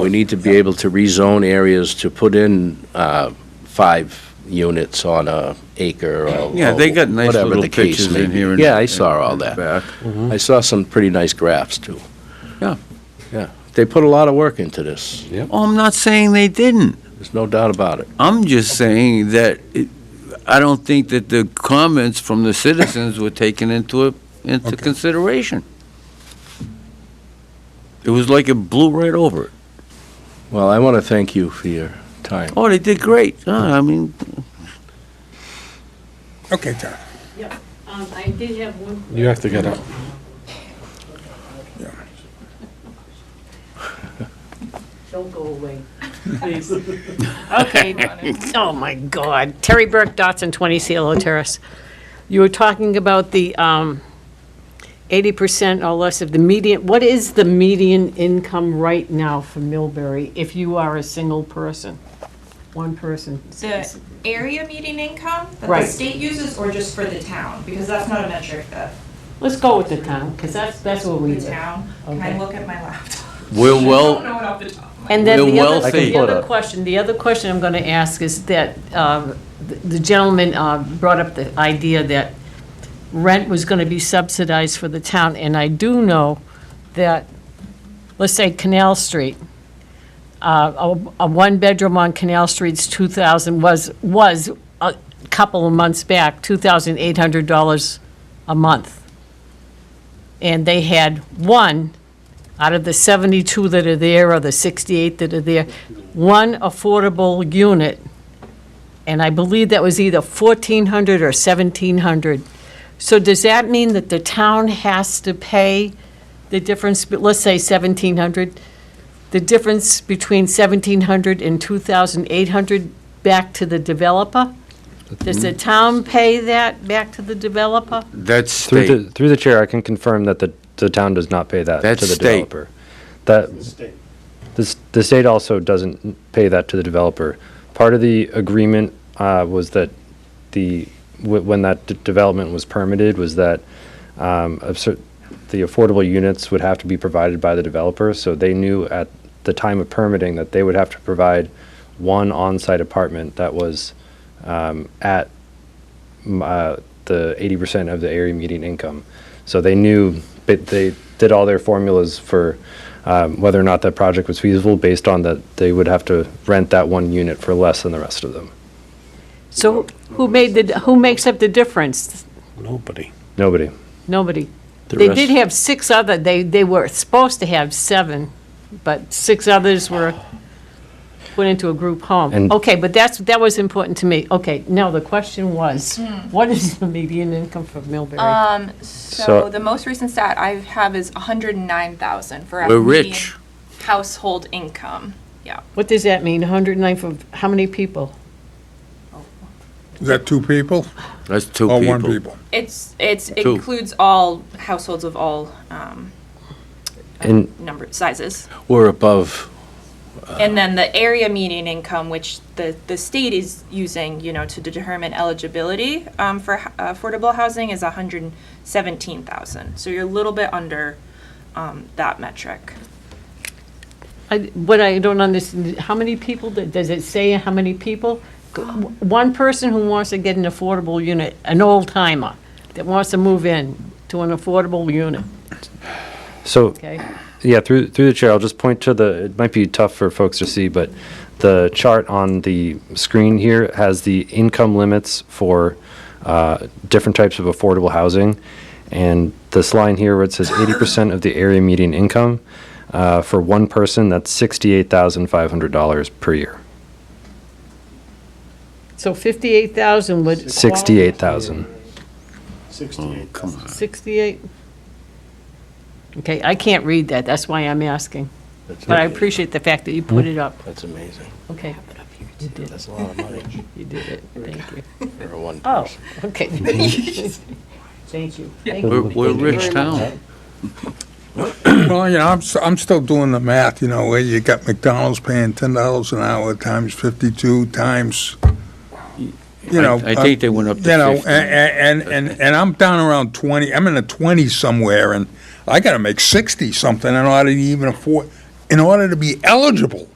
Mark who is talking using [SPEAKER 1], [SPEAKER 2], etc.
[SPEAKER 1] We need to be able to rezone areas to put in uh, five units on a acre or
[SPEAKER 2] Yeah, they got nice
[SPEAKER 1] whatever
[SPEAKER 2] little
[SPEAKER 1] the case
[SPEAKER 2] pictures
[SPEAKER 1] may
[SPEAKER 2] in
[SPEAKER 1] be.
[SPEAKER 2] here. and-
[SPEAKER 1] Yeah, I saw all
[SPEAKER 2] and
[SPEAKER 1] that.
[SPEAKER 2] back.
[SPEAKER 1] I saw some pretty nice graphs, too.
[SPEAKER 2] Yeah.
[SPEAKER 1] Yeah. They put a lot of work into this.
[SPEAKER 2] Oh, I'm not saying they didn't.
[SPEAKER 1] There's no doubt about it.
[SPEAKER 2] I'm just saying that it- I don't think that the comments from the citizens were taken into, into consideration. It was like it blew right over it.
[SPEAKER 1] Well, I want to thank you for your time.
[SPEAKER 2] Oh, they did great. Uh, I mean,
[SPEAKER 3] Okay, John.
[SPEAKER 4] Um, I did have one.
[SPEAKER 5] You have to get up.
[SPEAKER 4] Don't go away, please. Okay. Oh, my God. Terry Burke, Dotson, 20 CLO Terrace. You were talking about the um, 80% or less of the median, what is the median income right now for Millbury if you are a single person? One person.
[SPEAKER 6] The area median income that
[SPEAKER 4] Right.
[SPEAKER 6] the state uses or just for the town? Because that's not a metric that
[SPEAKER 4] Let's go with the town, because that's, that's what we
[SPEAKER 6] the
[SPEAKER 4] do.
[SPEAKER 6] town, can I look at my laptop?
[SPEAKER 2] we're
[SPEAKER 6] I don't
[SPEAKER 2] well,
[SPEAKER 6] know it off the top of my
[SPEAKER 4] And then
[SPEAKER 2] We're
[SPEAKER 4] the other,
[SPEAKER 2] wealthy.
[SPEAKER 4] the other question, the other question I'm going to ask is that uh, the the gentleman uh, brought up the idea that rent was going to be subsidized for the town, and I do know that, let's say Canal Street, uh, a a one-bedroom on Canal Street's 2,000 was, was a couple of months back, $2,800 a month. And they had one out of the 72 that are there, or the 68 that are there, one affordable unit, and I believe that was either 1,400 or 1,700. So does that mean that the town has to pay the difference, but let's say 1,700, the difference between 1,700 and 2,800 back to the developer? Does the town pay that back to the developer?
[SPEAKER 2] that's
[SPEAKER 5] Through
[SPEAKER 2] state.
[SPEAKER 5] the, through the chair, I can confirm that the, the town does not pay that
[SPEAKER 2] That's
[SPEAKER 5] to the
[SPEAKER 2] state.
[SPEAKER 5] developer. That, the, s- the state also doesn't pay that to the developer. Part of the agreement uh, was that the, wh- when that d- development was permitted, was that um, a cer- the affordable units would have to be provided by the developer, so they knew at the time of permitting that they would have to provide one on-site apartment that was um, at m- uh, the 80% of the area median income. So they knew, but they did all their formulas for um, whether or not that project was feasible based on that they would have to rent that one unit for less than the rest of them.
[SPEAKER 4] So who made the, who makes up the difference?
[SPEAKER 3] Nobody.
[SPEAKER 5] Nobody.
[SPEAKER 4] Nobody.
[SPEAKER 1] The
[SPEAKER 4] They
[SPEAKER 1] rest-
[SPEAKER 4] did have six other, they, they were supposed to have seven, but six others were put into a group home.
[SPEAKER 5] And-
[SPEAKER 4] Okay, but that's, that was important to me. Okay, now the question was, what is the median income for Millbury?
[SPEAKER 6] Um,
[SPEAKER 5] So-
[SPEAKER 6] so the most recent stat I have is hundred and nine thousand for a
[SPEAKER 2] We're
[SPEAKER 6] median
[SPEAKER 2] rich.
[SPEAKER 6] household income. Yeah.
[SPEAKER 4] What does that mean, 109 for, how many people?
[SPEAKER 3] Is that two people
[SPEAKER 2] That's two
[SPEAKER 3] or one
[SPEAKER 2] people.
[SPEAKER 3] people?
[SPEAKER 6] It's, it's, it
[SPEAKER 2] Two.
[SPEAKER 6] includes all households of all, um, uh,
[SPEAKER 5] And
[SPEAKER 6] number, sizes.
[SPEAKER 1] We're above,
[SPEAKER 6] And then the area median income, which the, the state is using, you know, to determine eligibility um, for h- affordable housing is 117,000. So you're a little bit under um, that metric.
[SPEAKER 4] I, what I don't understand, how many people, that- does it say how many people? Go- One person who wants to get an affordable unit, an old timer, that wants to move in to an affordable unit,
[SPEAKER 5] so,
[SPEAKER 4] okay?
[SPEAKER 5] yeah, through, through the chair, I'll just point to the, it might be tough for folks to see, but the chart on the screen here has the income limits for uh, different types of affordable housing. And this line here where it says 80% of the area median income, uh, for one person, that's $68,500 per year.
[SPEAKER 4] So 58,000 would. qualify-
[SPEAKER 5] 68,000.
[SPEAKER 2] Oh, come on.
[SPEAKER 4] 68? Okay, I can't read that, that's why I'm asking. But I appreciate the fact that you put it up.
[SPEAKER 1] that's amazing.
[SPEAKER 4] Okay. You did,
[SPEAKER 1] That's a lot of money
[SPEAKER 4] you did it, thank you.
[SPEAKER 1] for a one
[SPEAKER 4] Oh,
[SPEAKER 1] person.
[SPEAKER 4] okay. Thank you. Thank
[SPEAKER 2] We're,
[SPEAKER 4] you.
[SPEAKER 2] we're a rich town.
[SPEAKER 3] Well, you know, I'm, s- I'm still doing the math, you know, where you got McDonald's paying ten dollars an hour times fifty-two times, you know.
[SPEAKER 2] I I think they went up
[SPEAKER 3] uh,
[SPEAKER 2] to
[SPEAKER 3] You know,
[SPEAKER 2] 50.
[SPEAKER 3] and, and, and, and I'm down around twenty, I'm in the twenties somewhere and I gotta make sixty something in order to even afford, in order to be eligible